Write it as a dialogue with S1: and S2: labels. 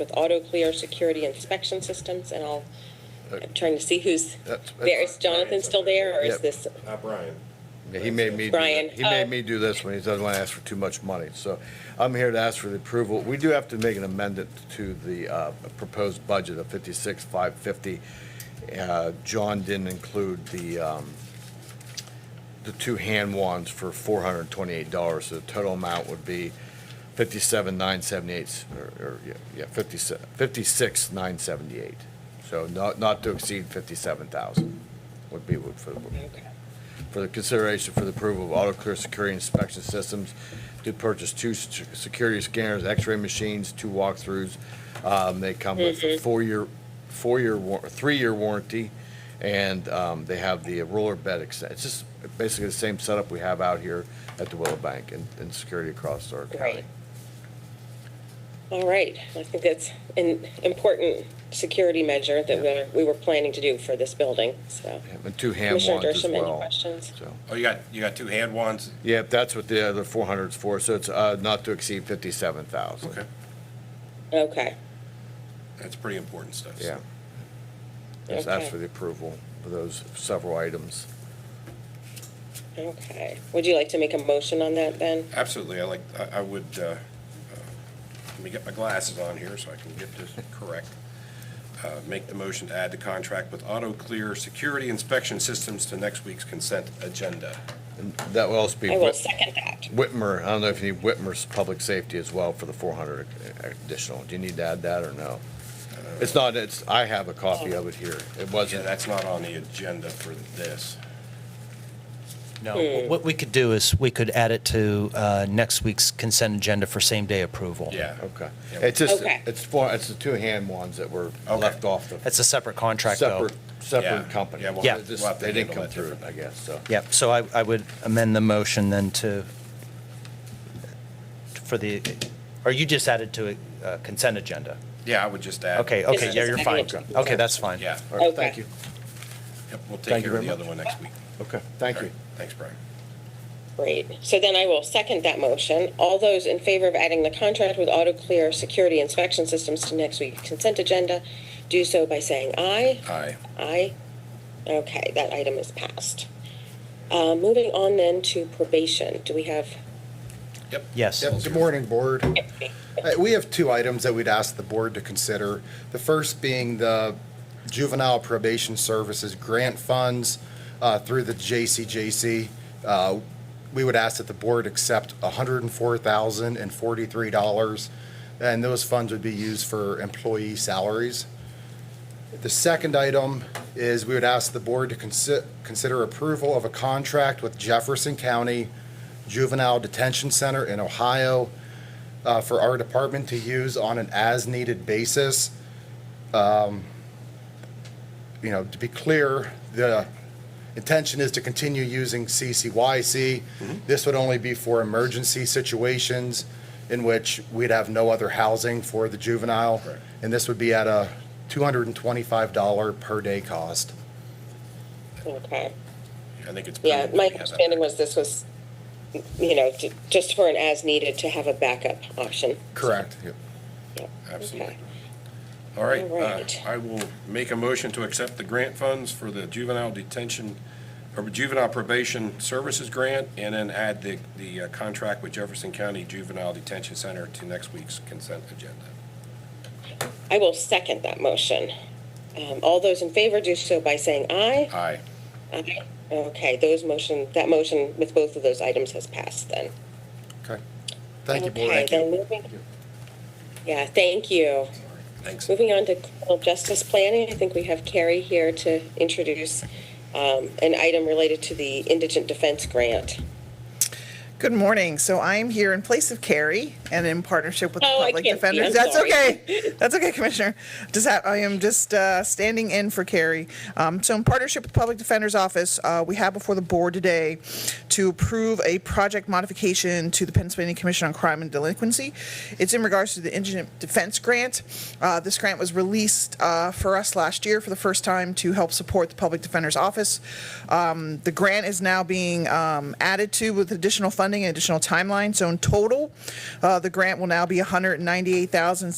S1: with auto clear security inspection systems and all. I'm trying to see who's
S2: Uh, That's-
S1: there. Is Jonathan still there or is
S2: Yep.
S1: this?
S3: Uh, Brian.
S2: Yeah, He made me, do
S1: Brian,
S2: that. he made
S1: oh.
S2: me do this when he doesn't want to ask for too much money. So I'm here to ask for the approval. We do have to make an amendment to the uh, proposed budget of fifty-six, five fifty. Uh, John didn't include the, um, the two hand wands for four hundred and twenty-eight dollars. So the total amount would be fifty-seven, nine seventy-eight, or, or, yeah, yeah, fifty-six, fifty-six, nine seventy-eight. So not, not to exceed fifty-seven thousand would be what for the
S1: Okay.
S2: for the consideration for the approval of auto clear security inspection systems to purchase two s- security scanners, x-ray machines, two walkthroughs. Um, they come with a four-year, four-year, war- three-year warranty, and, um, they have the roller bed extend. It's just basically the same setup we have out here at the Willow Bank and, and security across our county.
S1: Right. All right. I think that's an important security measure that we're, we were planning to do for this building, so.
S2: And two hand
S1: Commissioner
S2: wands as
S1: Dershowitz, any
S2: well.
S1: questions?
S2: So,
S3: Oh, you got, you got two hand wands?
S2: yeah, that's what the other four hundred's for, so it's, uh, not to exceed fifty-seven thousand.
S3: Okay,
S1: Okay.
S3: that's pretty important stuff.
S2: Yeah. Just ask
S1: Okay.
S2: for the approval for those several items.
S1: Okay. Would you like to make a motion on that then?
S3: Absolutely, I like, I, I would, uh, uh, let me get my glasses on here so I can get this correct. Uh, Make the motion to add the contract with Auto Clear Security Inspection Systems to next week's consent agenda.
S2: And that will also be
S1: I will
S2: Whit-
S1: second that.
S2: Whitmer, I don't know if you need Whitmer's public safety as well for the four hundred additional. Do you need to add that or no? It's not, it's, I have a copy of it here. It
S3: Yeah,
S2: wasn't,
S3: that's not on the agenda for this.
S4: No, what we could do is we could add it to uh, next week's consent agenda for same-day approval.
S3: Yeah.
S2: okay.
S3: Yeah.
S2: It's just,
S1: Okay.
S2: it's four, it's the two hand ones that were
S3: Okay.
S2: left off the
S4: That's a separate contract, though.
S2: separate, separate
S3: Yeah.
S2: company.
S3: Yeah, we'll-
S4: Yeah.
S2: They just-
S3: we'll have to
S2: They didn't come
S3: handle that
S2: through,
S3: differently.
S2: I guess, so.
S4: Yep, so I, I would amend the motion then to, for the, or you just added to a consent agenda?
S3: Yeah, I would just add.
S4: Okay,
S1: This
S4: okay,
S1: is
S4: yeah,
S1: a
S4: you're fine.
S1: second agenda.
S4: Okay, that's fine.
S3: Yeah,
S2: All right,
S1: Okay.
S2: thank you.
S3: yep, we'll take
S2: Thank you
S3: care of
S2: very
S3: the other
S2: much.
S3: one next week.
S2: Okay, thank
S3: All
S2: you.
S3: right, Thanks, Brian.
S1: Great. So then I will second that motion. All those in favor of adding the contract with AutoClear Security Inspection Systems to next week's consent agenda, do so by saying aye.
S3: Aye.
S1: Aye. Okay, that item is passed. Uh, Moving on then to probation. Do we have,
S3: Yep.
S4: Yes.
S5: Yep, Good morning, Board. Uh, We have two items that we'd ask the Board to consider. The first being the Juvenile Probation Services grant funds uh, through the JCJC. Uh, We would ask that the Board accept $104,043, and those funds would be used for employee salaries. The second item is we would ask the board to consi- consider approval of a contract with Jefferson County Juvenile Detention Center in Ohio uh, for our department to use on an as-needed basis. Um, You know, to be clear, the intention is to continue using CCYC. This would only be for emergency situations in which we'd have no other housing for the juvenile.
S3: Correct.
S5: And this would be at a $225 per day cost.
S1: okay.
S3: I think it's.
S1: Yeah,
S3: prudent
S1: my
S3: we have that.
S1: understanding was this was, you know, to- just for an as-needed to have a backup option.
S5: Correct.
S1: Yep.
S3: Absolutely.
S1: Okay.
S3: All right,
S1: All right.
S3: uh, I will make a motion to accept the grant funds for the juvenile detention, or juvenile probation services grant, and then add the, the uh, contract with Jefferson County Juvenile Detention Center to next week's consent agenda.
S1: I will second that motion. Um, All those in favor do so by saying aye.
S3: Aye.
S1: Aye. Okay, those motion, that motion with both of those items has passed then.
S5: Okay. Thank you, Board.
S1: Okay, then moving, yeah, thank you.
S3: Thanks.
S1: Moving on to criminal justice planning, I think we have Carrie here to introduce um, an item related to the indigent defense grant.
S6: Good morning. So I am here in place of Carrie and in partnership with the
S1: Oh, I
S6: public
S1: can't see. I'm
S6: defenders. That's
S1: sorry.
S6: okay. That's okay, Commissioner. Just ha- I am just uh, standing in for Carrie. Um, so in partnership with the public defender's office, uh, we have before the board today to approve a project modification to the Pennsylvania Commission on Crime and Delinquency. It's in regards to the indigent defense grant. Uh, this grant was released uh, for us last year for the first time to help support the public defender's office. Um, the grant is now being um, added to with additional funding and additional timeline. So in total, uh, the grant will now be 198,000.